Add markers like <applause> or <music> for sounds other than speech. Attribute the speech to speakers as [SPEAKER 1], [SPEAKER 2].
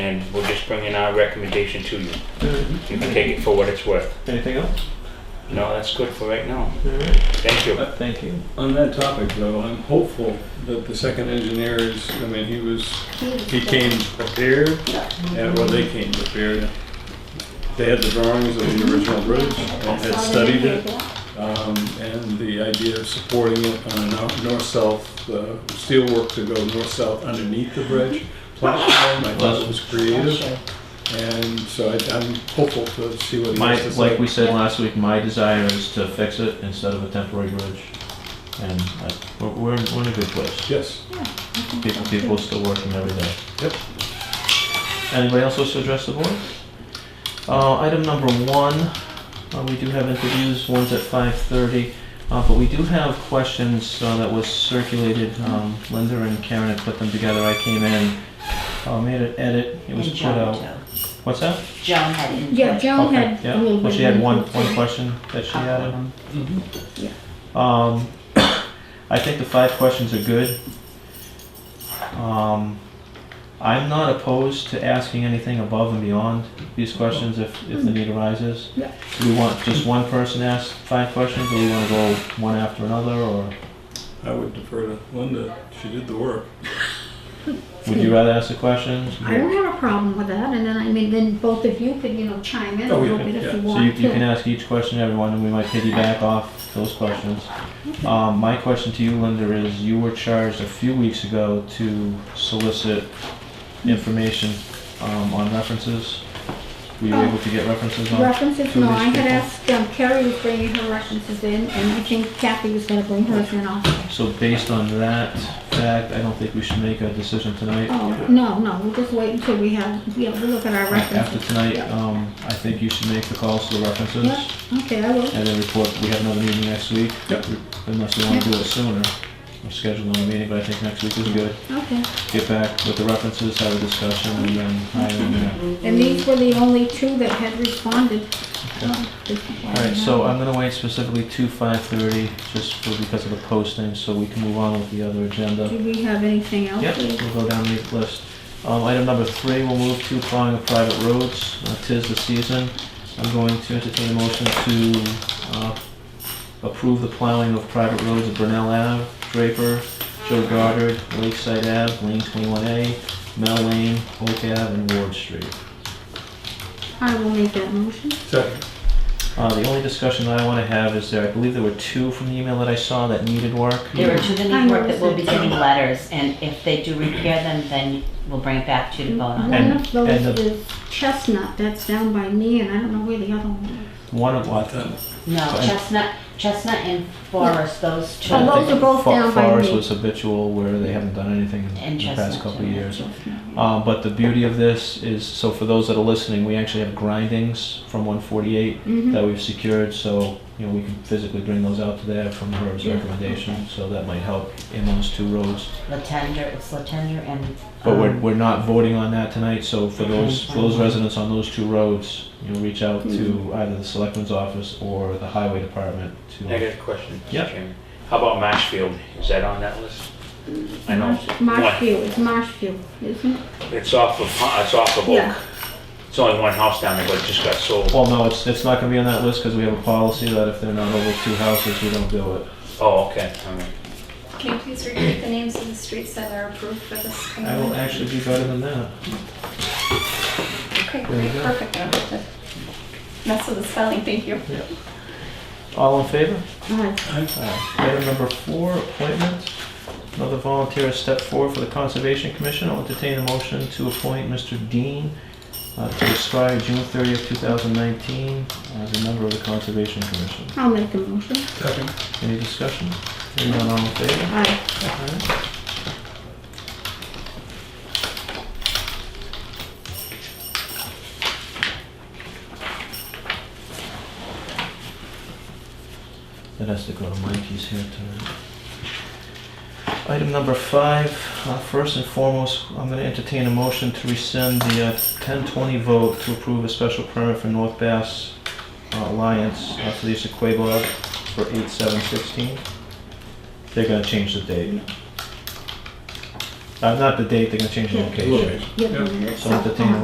[SPEAKER 1] and we're just bringing our recommendation to you. You can take it for what it's worth.
[SPEAKER 2] Anything else?
[SPEAKER 1] No, that's good for right now.
[SPEAKER 2] All right.
[SPEAKER 1] Thank you.
[SPEAKER 2] Uh, Thank you.
[SPEAKER 3] On that topic though, I'm hopeful that the second engineer is, I mean, he was, he came prepared, and well, they came prepared. They had the drawings of the original bridge, and had studied it, um, and the idea of supporting it on a nor- north-south, the steelwork to go north-south underneath the bridge platform, I thought it was creative. And so I, I'm hopeful to see what he
[SPEAKER 4] My,
[SPEAKER 3] has to
[SPEAKER 4] like
[SPEAKER 3] say.
[SPEAKER 4] we said last week, my desire is to fix it instead of a temporary bridge. And I, we're, we're in we're in a good place.
[SPEAKER 3] Yes,
[SPEAKER 4] People, people are still working every day.
[SPEAKER 3] Yep.
[SPEAKER 4] Anybody else wish to address the board? Uh, item number one, uh, we do have interviews, one's at five thirty. Uh, but we do have questions, uh, that was circulated, um, Linda and Karen had put them together, I came in, uh, made an edit, it was put
[SPEAKER 5] And John,
[SPEAKER 4] out.
[SPEAKER 5] too.
[SPEAKER 4] What's that?
[SPEAKER 5] John had input.
[SPEAKER 6] Yeah, Joan
[SPEAKER 4] Okay,
[SPEAKER 6] had a
[SPEAKER 4] yeah,
[SPEAKER 6] little bit.
[SPEAKER 4] well, she
[SPEAKER 6] of
[SPEAKER 4] had one,
[SPEAKER 6] input.
[SPEAKER 4] one question that she added. Mm-hmm.
[SPEAKER 6] Yeah.
[SPEAKER 4] Um, <coughs> I think the five questions are good. Um, I'm not opposed to asking anything above and beyond these questions if, if the need arises.
[SPEAKER 6] Yeah.
[SPEAKER 4] Do we want just one person to ask five questions, or we wanna go one after another, or
[SPEAKER 3] I would defer to Linda, she did the work.
[SPEAKER 4] would you rather ask the questions?
[SPEAKER 6] I don't have a problem with that, and then, I mean, then both of you could, you know, chime in a
[SPEAKER 3] Oh, yeah,
[SPEAKER 6] little bit
[SPEAKER 3] yeah.
[SPEAKER 6] if you
[SPEAKER 4] So you,
[SPEAKER 6] want
[SPEAKER 4] you can
[SPEAKER 6] to.
[SPEAKER 4] ask each question to everyone, and we might piggyback off those questions. Um, my question to you, Linda, is you were charged a few weeks ago to solicit information, um, on references. Were you
[SPEAKER 6] Oh.
[SPEAKER 4] able to get references on?
[SPEAKER 6] References,
[SPEAKER 4] to
[SPEAKER 6] no,
[SPEAKER 4] these
[SPEAKER 6] I had
[SPEAKER 4] people?
[SPEAKER 6] asked, um, Carrie was bringing her references in, and I think Kathy was gonna bring hers in also.
[SPEAKER 4] So based on that fact, I don't think we should make a decision tonight.
[SPEAKER 6] Oh, no, no, we'll just wait until we have, you know, we look at our
[SPEAKER 4] After
[SPEAKER 6] references.
[SPEAKER 4] tonight,
[SPEAKER 6] Yeah.
[SPEAKER 4] um, I think you should make the calls to the references.
[SPEAKER 6] Yeah. Okay, I will.
[SPEAKER 4] And then report, we have another meeting next week.
[SPEAKER 3] Yep.
[SPEAKER 4] Unless we wanna do it sooner, we're scheduling another meeting, but I think next week is good.
[SPEAKER 6] Okay.
[SPEAKER 4] Get back with the references, have a discussion, and then hire them there.
[SPEAKER 6] And these were the only two that had responded.
[SPEAKER 4] Alright, so um, I'm gonna wait specifically to five thirty, just for, because of the posting, so we can move on with the other agenda.
[SPEAKER 6] Do we have anything else?
[SPEAKER 4] Yep, we'll go down the list. Um, item number three, we'll move to plowing of private roads, Uh, tis the season. I'm going to entertain a motion to, uh, approve the plowing of private roads at Brunel Ave, Draper, Joe Goddard, Lakeside Ave, Lane twenty-one A, Mel Lane, Oak Ave, and Ward Street.
[SPEAKER 6] I will make that motion.
[SPEAKER 3] Second,
[SPEAKER 4] Uh, the only discussion that I want to have is there, I believe there were two from the email that I saw that needed work.
[SPEAKER 5] There are two that
[SPEAKER 6] I
[SPEAKER 5] need work
[SPEAKER 6] noticed
[SPEAKER 5] that will be
[SPEAKER 6] it.
[SPEAKER 5] getting letters, and if they do repair them, then we'll bring it back to you to vote on.
[SPEAKER 6] One of
[SPEAKER 4] and
[SPEAKER 6] those
[SPEAKER 4] the-
[SPEAKER 6] is Chestnut, that's down by me, and I don't know where the other one is.
[SPEAKER 4] One of what?
[SPEAKER 3] Done.
[SPEAKER 5] No,
[SPEAKER 4] Mm-hmm. Fine.
[SPEAKER 5] Chestnut, Chestnut and Forest, those two.
[SPEAKER 6] Oh, those are both
[SPEAKER 4] Fo-
[SPEAKER 6] down by
[SPEAKER 4] Forest
[SPEAKER 6] me.
[SPEAKER 4] was habitual where they haven't done anything in
[SPEAKER 5] And
[SPEAKER 4] the past
[SPEAKER 5] Chestnut,
[SPEAKER 4] couple of
[SPEAKER 5] yeah.
[SPEAKER 4] years.
[SPEAKER 6] Chestnut.
[SPEAKER 4] Um, but the beauty of this is, so for those that are listening, we actually have grindings from one forty-eight
[SPEAKER 6] Mhm.
[SPEAKER 4] that we've secured, so, you know, we can physically bring those out to there from Herb's
[SPEAKER 5] Yeah,
[SPEAKER 4] recommendation,
[SPEAKER 5] okay.
[SPEAKER 4] so that might help in those two roads.
[SPEAKER 5] Latender, it's Latender and.
[SPEAKER 4] But we're,
[SPEAKER 5] um,
[SPEAKER 4] we're not voting on that tonight, so for those, for those
[SPEAKER 5] Okay.
[SPEAKER 4] residents on those two roads, you know, reach out
[SPEAKER 5] Hmm.
[SPEAKER 4] to either the selectman's office or the highway department
[SPEAKER 1] I
[SPEAKER 4] to.
[SPEAKER 1] got a question,
[SPEAKER 4] Yep.
[SPEAKER 1] Mr. Chairman. How about Marshfield? Is that on that list? I know.
[SPEAKER 6] Marsh- Marshfield, it's Marshfield, isn't it?
[SPEAKER 1] It's off of, it's off of
[SPEAKER 6] Yeah.
[SPEAKER 1] Oak. It's only one house down there, but it just got sold.
[SPEAKER 4] Well, no, it's, it's not gonna be on that list, cause we have a policy that if they're not over two houses, we don't do it.
[SPEAKER 1] Oh, okay, all right.
[SPEAKER 7] Can you please repeat the names of the streets that are approved for this?
[SPEAKER 4] I will actually do better than that.
[SPEAKER 7] Okay,
[SPEAKER 4] There you
[SPEAKER 7] great,
[SPEAKER 4] go.
[SPEAKER 7] perfect. I don't have to Mess with the spelling, thank you.
[SPEAKER 4] All in favor?
[SPEAKER 6] Uh,
[SPEAKER 4] Aye. Item number four, appointment. Another volunteer has stepped forward for the Conservation Commission. I'll entertain a motion to appoint Mr. Dean uh, to expire June 30th, 2019 as a member of the Conservation Commission.
[SPEAKER 6] I'll make a motion.
[SPEAKER 3] second.
[SPEAKER 4] Any discussion? Hearing none, all in favor?
[SPEAKER 6] Aye.
[SPEAKER 4] Aye. That has to go to Mikey's here tonight. Item number five, uh, first and foremost, I'm gonna entertain a motion to rescind the uh, 1020 vote to approve a special permit for North Bass uh, Alliance uh, for the use of Quabog for 8716. They're gonna change the date. Uh, Not the date, they're gonna change the
[SPEAKER 6] Yeah.
[SPEAKER 4] location.
[SPEAKER 6] Give
[SPEAKER 3] Yep.
[SPEAKER 6] them this.
[SPEAKER 4] So entertain a